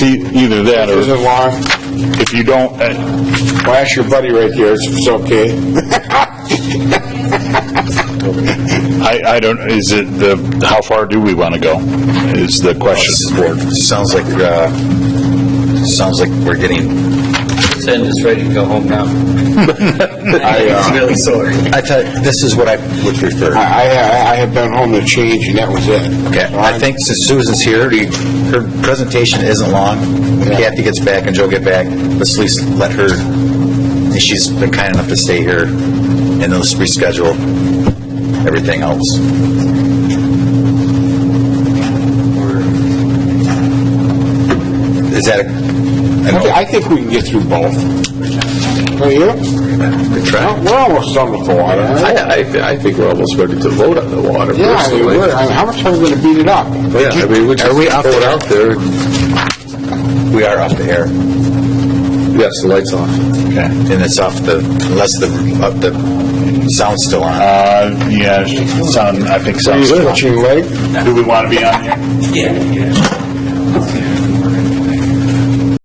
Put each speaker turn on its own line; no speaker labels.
E- Either that,
There's a
or
law,
if you don't, uh,
well, ask your buddy right here, it's it's okay.
I, I don't, is it the, how far do we want to go, is the question.
Sounds like, uh, sounds like we're getting.
Send is ready to go home now.
I, uh,
Really sorry.
I thought, this is what I would prefer.
I, I, I have been home to change, and that was it.
Okay, I think since Susan's here, we- her presentation isn't long. When Kathy gets back and Joe get back, let's at least let her, she's been kind enough to stay here, and then let's reschedule everything else. Is that a, I
Okay,
know,
I think we can get through both. Well, yeah,
good try?
we're almost done with the water.
I, I, I think we're almost ready to vote on the water
Yeah, I mean,
personally.
we're, I mean, how much are we gonna beat it up?
Yeah, I mean, we just
Are
throw
we off
it
the-
out there,
We are off the air, and
yes, the light's off.
it's off the, unless the, uh, the sound's still on.
Uh, yeah, sound, I think
Are you
sounds.
switching leg?
Do we want to be on here?
Yeah.